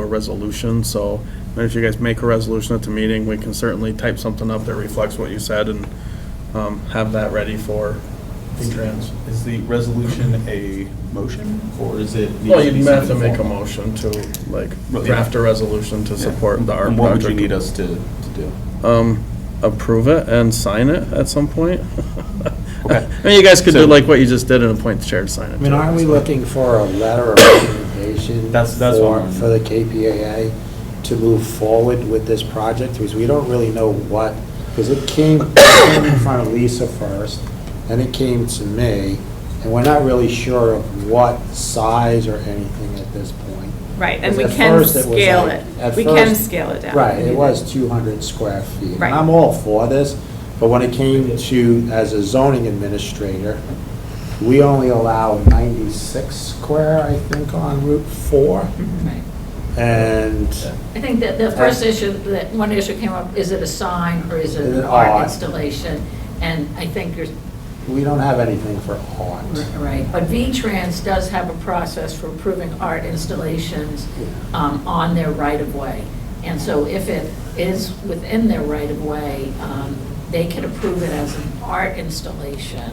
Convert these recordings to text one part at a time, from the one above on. a resolution, so I mean, if you guys make a resolution at the meeting, we can certainly type something up that reflects what you said and um, have that ready for V-Trans. Is the resolution a motion, or is it? Well, you'd have to make a motion to, like, draft a resolution to support the art project. And what would you need us to, to do? um, approve it and sign it at some point. Okay. I mean, you guys could do So- like what you just did and appoint the chair to sign it. I mean, too, aren't we so. looking for a letter of recommendation? That's- that's what for- I'm- For the KPAA to move forward with this project, because we don't really know what, because it came, it came in front of Lisa first, then it came to me, and we're not really sure of what size or anything at this point. Right, and we Because at can first it was scale like- it. at We can first- scale it down. Right, it was 200 square feet. And Right. I'm all for this, but when it came to, as a zoning administrator, we only allow 96 square, I think, on Route 4, Right. and I think that Uh, the first issue, that one issue came up, is it a sign or is it an art installation? And I think you're we don't have anything for art. right, but V-Trans does have a process for approving art installations um, on their right-of-way. And so if it is within their right-of-way, um, they can approve it as an art installation.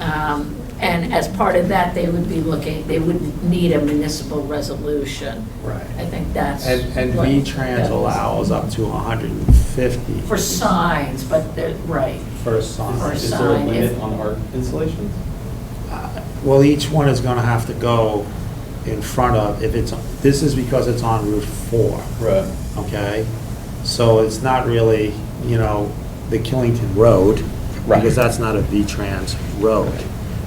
Um, And as part of that, they would be looking, they would need a municipal resolution. Right. I think that's. And, and what- V-Trans that- allows up to 150. For signs, but they're, right. For sign. For Is there a sign, limit if- on art installations? Uh, Well, each one is going to have to go in front of, if it's, this is because it's on Route 4. Right. okay? So it's not really, you know, the Killington Road, because that's not a V-Trans road.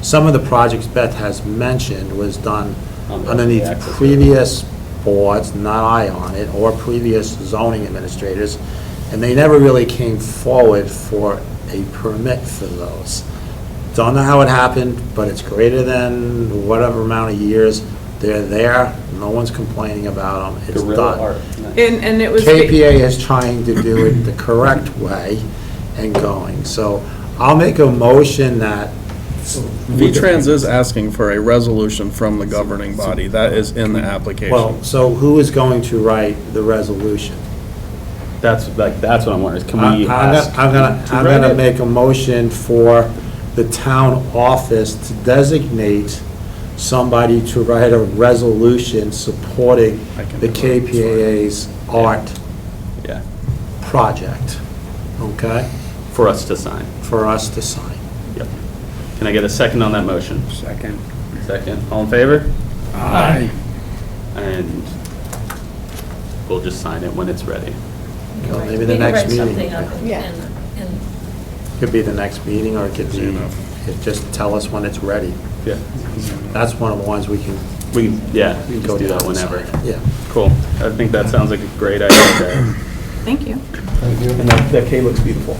Some of the projects Beth has mentioned was done Under underneath the access road. previous boards, not I on it, or previous zoning administrators, and they never really came forward for a permit for those. Don't know how it happened, but it's greater than whatever amount of years. They're there, no one's complaining about them, it's done. Guerrilla art. And, and it was. KPA is trying to do it the correct way and going. So I'll make a motion that. V-Trans is asking for a resolution from the governing body. That is in the application. Well, so who is going to write the resolution? That's, like, that's what I'm wondering, is can I- we I'm ask? gonna- I'm gonna, to I'm write gonna it? make a motion for the town office to designate somebody to write a resolution supporting I can the do it. KPA's art Yeah, project, okay? for us to sign, For us to sign. yep. Can I get a second on that motion? Second. Second, all in favor? Aye. And we'll just sign it when it's ready. Well, Right. maybe the We can next write meeting. something up in- Yeah. in- Could be the next meeting, or it could Easy be, enough. it- just tell us when it's ready. Yeah. That's one of the ones we can We, can- yeah, we can just go do that down and sign. whenever. Yeah. Cool. I think that sounds like a great idea, Jared. Thank you. And that, that K looks beautiful.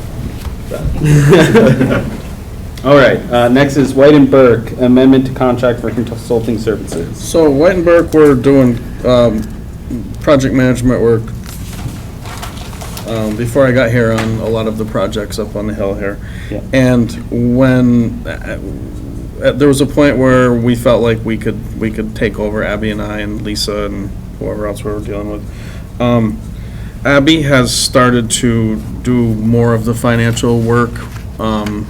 All right, uh, next is White and Burke, amendment to contract for consulting services. So White and Burke, we're doing um, project management work um, before I got here on a lot of the projects up on the hill here. Yeah. And when, uh, uh, there was a point where we felt like we could, we could take over, Abby and I and Lisa and whoever else we were dealing with. Um, Abby has started to do more of the financial work um,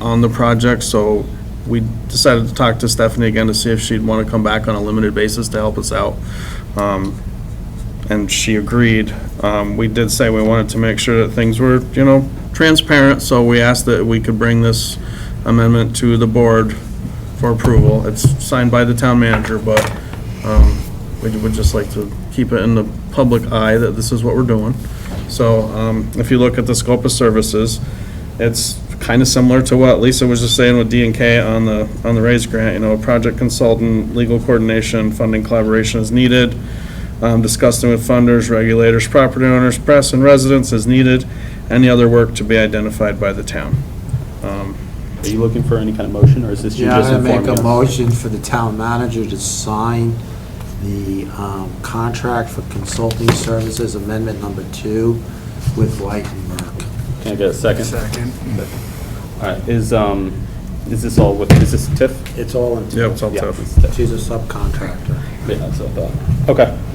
on the project, so we decided to talk to Stephanie again to see if she'd want to come back on a limited basis to help us out. Um, and she agreed. Um, we did say we wanted to make sure that things were, you know, transparent, so we asked that we could bring this amendment to the board for approval. It's signed by the town manager, but, um, we would just like to keep it in the public eye that this is what we're doing. So, um, if you look at the scope of services, it's kind of similar to what Lisa was just saying with D and K on the, on the raise grant, you know, project consultant, legal coordination, funding collaboration is needed um, discussing with funders, regulators, property owners, press, and residents as needed, any other work to be identified by the town. Um, Are you looking for any kind of motion, or is this you Yeah, just I'm informing going us? to make a motion for the town manager to sign the um, contract for consulting services, amendment number two, with White and Merck. Can I get a second? Second. All right, is, um, is this all with, is this TIF? It's all in. Yeah, it's all Yeah, tough. it's TIF. She's a subcontractor. Yeah, that's what I thought. Okay.